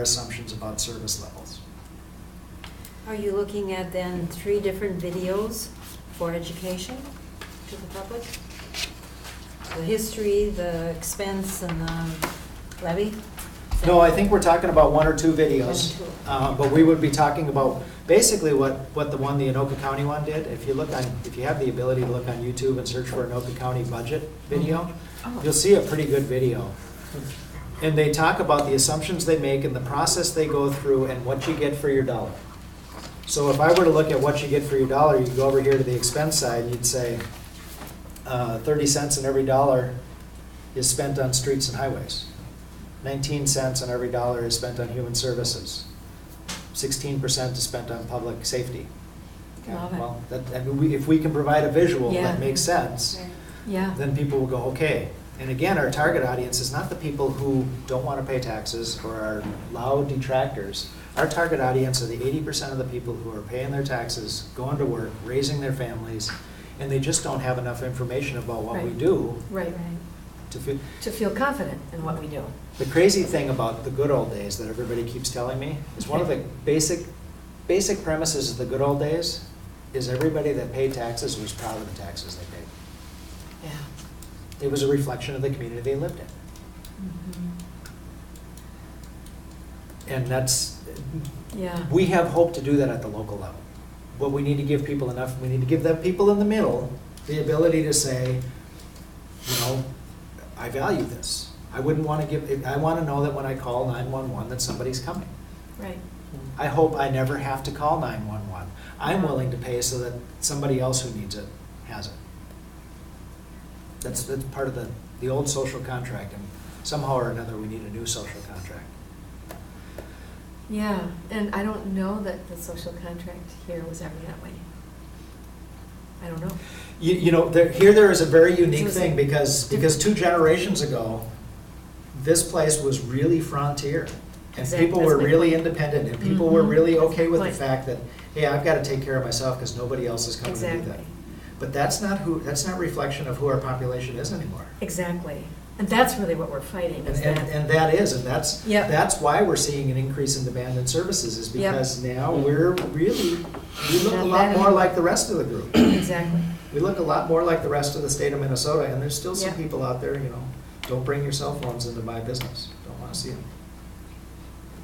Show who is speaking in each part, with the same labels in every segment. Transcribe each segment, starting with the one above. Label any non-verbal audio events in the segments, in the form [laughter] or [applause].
Speaker 1: assumptions about service levels.
Speaker 2: Are you looking at then three different videos for education to the public? The history, the expense, and the levy? Is that-
Speaker 1: No, I think we're talking about one or two videos,
Speaker 2: One or two.
Speaker 1: uh, but we would be talking about basically what, what the one, the Anoka County one did. If you look on, if you have the ability to look on YouTube and search for Anoka County budget video,
Speaker 2: Oh.
Speaker 1: you'll see a pretty good video. And they talk about the assumptions they make and the process they go through and what you get for your dollar. So if I were to look at what you get for your dollar, you go over here to the expense side, and you'd say, uh, thirty cents in every dollar is spent on streets and highways. Nineteen cents on every dollar is spent on human services. Sixteen percent is spent on public safety.
Speaker 2: Love it.
Speaker 1: Well, that, I mean, we, if we can provide a visual
Speaker 2: Yeah.
Speaker 1: that makes sense,
Speaker 2: Yeah.
Speaker 1: then people will go, okay. And again, our target audience is not the people who don't want to pay taxes or are loud detractors. Our target audience are the eighty percent of the people who are paying their taxes, going to work, raising their families, and they just don't have enough information about what we
Speaker 3: Right.
Speaker 1: do
Speaker 3: Right,
Speaker 1: to feel.
Speaker 3: to feel confident in what we do.
Speaker 1: The crazy thing about the good old days that everybody keeps telling me is one of the basic, basic premises of the good old days is everybody that paid taxes was proud of the taxes they paid.
Speaker 3: Yeah.
Speaker 1: It was a reflection of the community they lived in. And that's,
Speaker 3: Yeah.
Speaker 1: we have hope to do that at the local level. But we need to give people enough, we need to give the people in the middle the ability to say, you know, I value this. I wouldn't want to give, I want to know that when I call 911 that somebody's coming.
Speaker 3: Right.
Speaker 1: I hope I never have to call 911. I'm willing to pay so that somebody else who needs it has it. That's, that's part of the, the old social contract, and somehow or another, we need a new social contract.
Speaker 3: Yeah, and I don't know that the social contract here was ever that way. I don't know.
Speaker 1: You, you know, there, here there is a very unique
Speaker 3: So it's
Speaker 1: thing,
Speaker 3: like
Speaker 1: because, because two generations ago, this place was really frontier. And
Speaker 3: Exact-
Speaker 1: people were
Speaker 3: that's my
Speaker 1: really
Speaker 3: point.
Speaker 1: independent, and people were
Speaker 3: Mhm.
Speaker 1: really
Speaker 3: That's
Speaker 1: okay
Speaker 3: my
Speaker 1: with the
Speaker 3: point.
Speaker 1: fact that, hey, I've got to take care of myself, because nobody else is coming to do that.
Speaker 3: Exactly.
Speaker 1: But that's not who, that's not reflection of who our population is anymore.
Speaker 3: Exactly. And that's really what we're fighting,
Speaker 1: And,
Speaker 3: is
Speaker 1: and,
Speaker 3: that,
Speaker 1: and that is, and that's,
Speaker 3: Yep.
Speaker 1: that's why we're seeing an increase in demand in services, is
Speaker 3: Yep.
Speaker 1: because now we're really, we look a
Speaker 3: Not
Speaker 1: lot
Speaker 3: bad.
Speaker 1: more like the rest of the group.
Speaker 3: exactly.
Speaker 1: We look a lot more like the rest of the state of Minnesota, and there's still some
Speaker 3: Yep.
Speaker 1: people out there, you know, don't bring your cell phones into my business, don't wanna see them.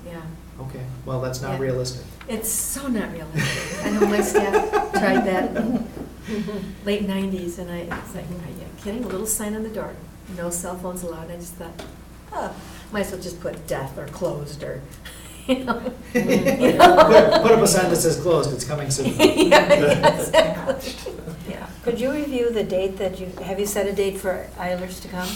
Speaker 3: Yeah.
Speaker 1: Okay, well, that's not
Speaker 3: Yep.
Speaker 1: realistic.
Speaker 3: It's so not realistic. I know my staff tried that in
Speaker 1: [laughs]
Speaker 2: Mm-hmm. [laughs]
Speaker 3: late nineties and I was like, are you kidding? A little sign on the door, no cell phones allowed. I just thought, oh, might as well just put death or closed or, [laughs] you know.
Speaker 1: Put
Speaker 3: You
Speaker 1: put up
Speaker 3: know?
Speaker 1: a sign that says closed, it's coming soon.
Speaker 3: [laughs]
Speaker 1: [laughs]
Speaker 3: Yeah, exactly. Yeah.
Speaker 2: Could you review the date that you, have you set a date for Eilers to come?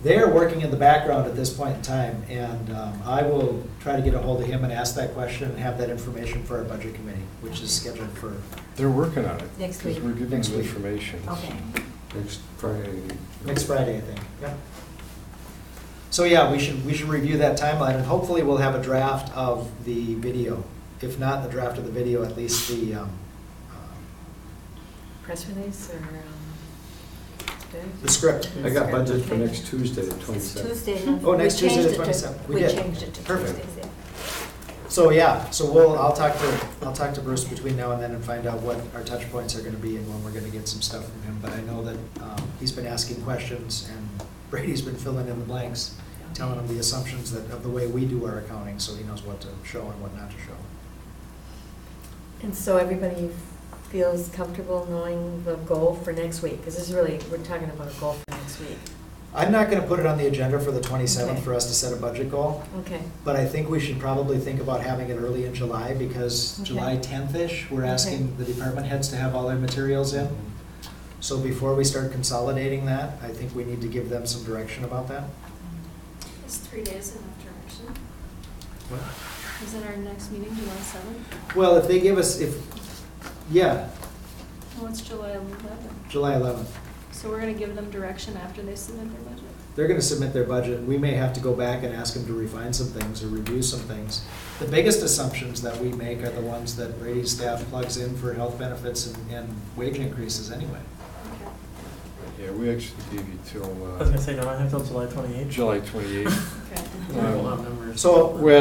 Speaker 1: They're working in the background at this point in time, and um, I will try to get a hold of him and ask that question and have that information for our budget committee, which is scheduled for,
Speaker 4: They're working on it.
Speaker 2: Next week.
Speaker 4: Because we're giving
Speaker 1: Next
Speaker 4: them
Speaker 1: week.
Speaker 4: information.
Speaker 2: Okay.
Speaker 4: Next Friday.
Speaker 1: next Friday, I think, yeah. So yeah, we should, we should review that timeline, and hopefully we'll have a draft of the video. If not the draft of the video, at least the, um, um,
Speaker 3: Press release or, um,
Speaker 1: the script.
Speaker 4: I got budget for next Tuesday, the
Speaker 2: It's
Speaker 4: twenty-seventh.
Speaker 2: Tuesday. no?
Speaker 1: Oh, next
Speaker 2: We changed
Speaker 1: Tuesday, the
Speaker 2: it to-
Speaker 1: 27th. We
Speaker 2: We
Speaker 1: did.
Speaker 2: changed it to
Speaker 1: Perfect.
Speaker 2: Tuesdays, yeah.
Speaker 1: So yeah, so we'll, I'll talk to, I'll talk to Bruce between now and then and find out what our touch points are gonna be and when we're gonna get some stuff from him. But I know that, um, he's been asking questions and Brady's been filling in the blanks, telling him the assumptions that, of the way we do our accounting, so he knows what to show and what not to show.
Speaker 3: And so everybody feels comfortable knowing the goal for next week? Because this is really, we're talking about a goal for next week.
Speaker 1: I'm not gonna put it on the agenda for the twenty-seventh
Speaker 3: Okay.
Speaker 1: for us to set a budget goal,
Speaker 3: Okay.
Speaker 1: but I think we should probably think about having it early in July because
Speaker 3: Okay.
Speaker 1: July tenth-ish, we're
Speaker 3: Okay.
Speaker 1: asking the department heads to have all their materials in. So before we start consolidating that, I think we need to give them some direction about that.
Speaker 5: Is three days enough direction? Is it our next meeting, July seventh?
Speaker 1: Well, if they give us, if, yeah,
Speaker 5: Well, it's July eleventh,
Speaker 1: July 11th,
Speaker 5: so we're gonna give them direction after they submit their budget.
Speaker 1: they're going to submit their budget. We may have to go back and ask them to refine some things or review some things. The biggest assumptions that we make are the ones that Brady's staff plugs in for health benefits and, and wage increases anyway.
Speaker 4: Yeah, we actually gave you till
Speaker 6: I was
Speaker 4: uh,
Speaker 6: gonna say, don't I have till July twenty-eighth? [laughs]
Speaker 4: July twenty-eighth.
Speaker 5: Okay.
Speaker 6: I don't have numbers.
Speaker 1: So,
Speaker 4: Well,